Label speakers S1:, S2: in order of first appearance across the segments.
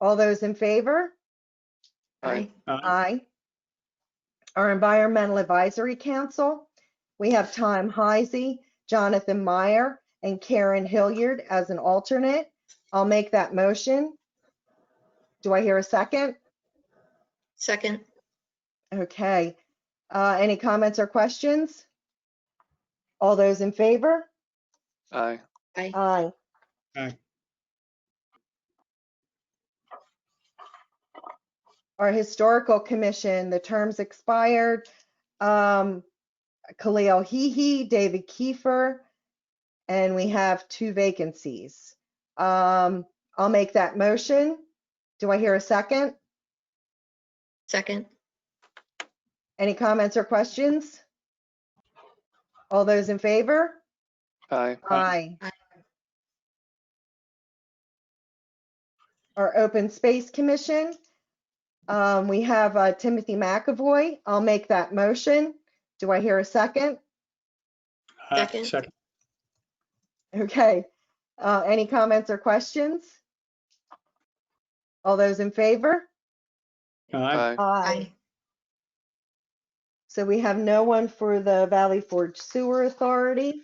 S1: All those in favor?
S2: Aye.
S1: Aye. Our Environmental Advisory Council, we have Tom Heisey, Jonathan Meyer, and Karen Hilliard as an alternate. I'll make that motion. Do I hear a second?
S2: Second,
S1: Okay. Uh, Any comments or questions? All those in favor?
S3: Aye.
S2: aye.
S1: Aye.
S4: Aye.
S1: Our Historical Commission, the terms expired. Um, Khalil Hehe, David Kiefer, and we have two vacancies. Um, I'll make that motion. Do I hear a second?
S2: Second,
S1: Any comments or questions? All those in favor?
S3: Aye.
S1: Aye.
S2: Aye.
S1: Our Open Space Commission, um, we have uh, Timothy McAvoy. I'll make that motion. Do I hear a second?
S4: Aye.
S2: Second.
S4: Second.
S1: Okay. Uh, Any comments or questions? All those in favor?
S3: Aye.
S4: Aye.
S2: aye.
S1: So we have no one for the Valley Forge Sewer Authority.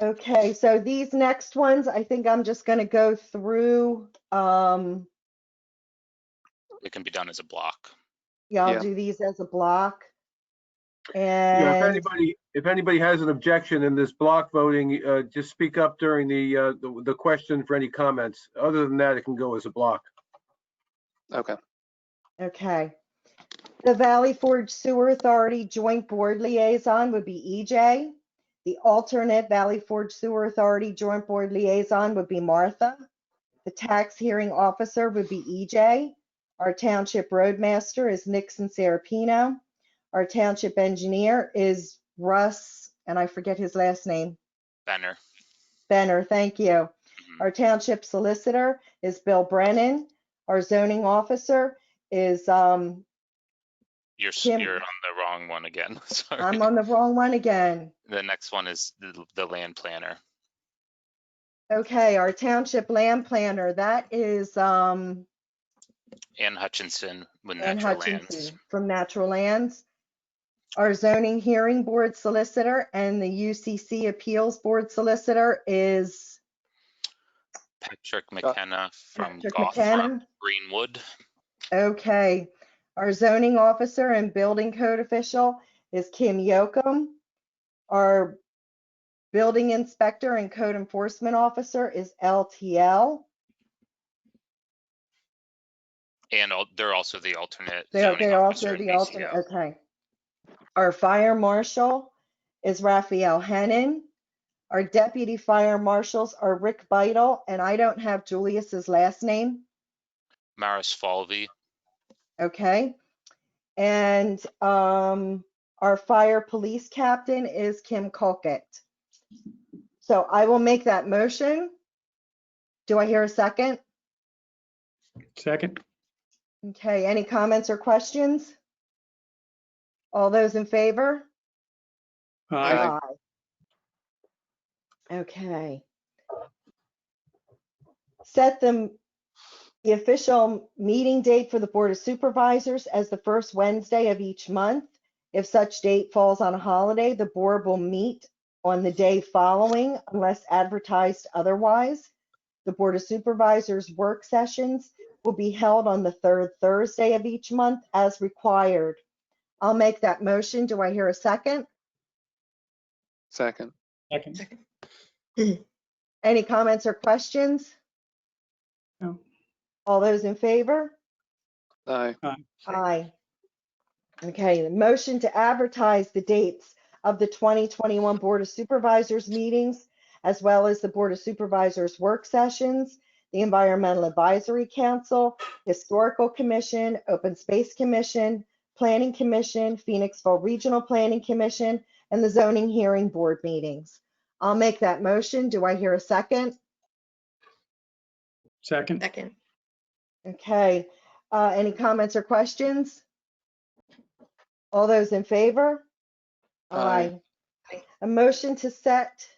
S1: Okay, so these next ones, I think I'm just going to go through. um,
S5: It can be done as a block.
S1: Yeah, I'll
S3: Yeah.
S1: do these as a block.
S6: Yeah,
S1: And,
S6: if anybody, if anybody has an objection in this block voting, uh, just speak up during the, uh, the- the question for any comments. Other than that, it can go as a block.
S3: Okay.
S1: okay. The Valley Forge Sewer Authority Joint Board Liaison would be EJ. The alternate Valley Forge Sewer Authority Joint Board Liaison would be Martha. The tax hearing officer would be EJ. Our township roadmaster is Nixon Serapino. Our township engineer is Russ, and I forget his last name.
S5: Benner,
S1: Benner, thank you.
S5: Mm-hmm.
S1: Our township solicitor is Bill Brennan. Our zoning officer is, um,
S5: you're, s-
S1: Jim.
S5: you're on the wrong one again. Sorry.
S1: I'm on the wrong one again.
S5: The next one is the, the land planner.
S1: Okay, our township land planner, that is, um,
S5: Ann Hutchinson with
S1: Ann
S5: natural lands.
S1: Hutchinson from Natural Lands. Our zoning hearing board solicitor and the UCC appeals board solicitor is
S5: Patrick McKenna from
S1: Uh, Patrick
S5: Goff Farm,
S1: McKenna.
S5: Greenwood.
S1: Okay, our zoning officer and building code official is Kim Yocum. Our building inspector and code enforcement officer is LTL.
S5: And al- they're also the alternate.
S1: They're,
S5: zoning
S1: they're also
S5: officer in
S1: the alternate,
S5: DCO.
S1: okay. Our fire marshal is Raphael Henin. Our deputy fire marshals are Rick Vital, and I don't have Julius's last name.
S5: Maris Falvey,
S1: Okay. And um, our fire police captain is Kim Colquitt. So I will make that motion. Do I hear a second?
S4: Second.
S1: Okay, any comments or questions? All those in favor? uh,
S4: Aye.
S1: Aye. Okay. Set the, the official meeting date for the Board of Supervisors as the first Wednesday of each month. If such date falls on a holiday, the board will meet on the day following unless advertised otherwise. The Board of Supervisors' work sessions will be held on the third Thursday of each month as required. I'll make that motion. Do I hear a second?
S3: Second.
S4: Second.
S1: Any comments or questions?
S4: No.
S1: All those in favor?
S3: Aye.
S1: Aye. Okay, the motion to advertise the dates of the 2021 Board of Supervisors meetings, as well as the Board of Supervisors work sessions, the Environmental Advisory Council, Historical Commission, Open Space Commission, Planning Commission, Phoenixville Regional Planning Commission, and the Zoning Hearing Board meetings. I'll make that motion. Do I hear a second?
S4: Second.
S2: Second,
S1: Okay, uh, any comments or questions? All those in favor?
S3: Aye.
S1: A motion to set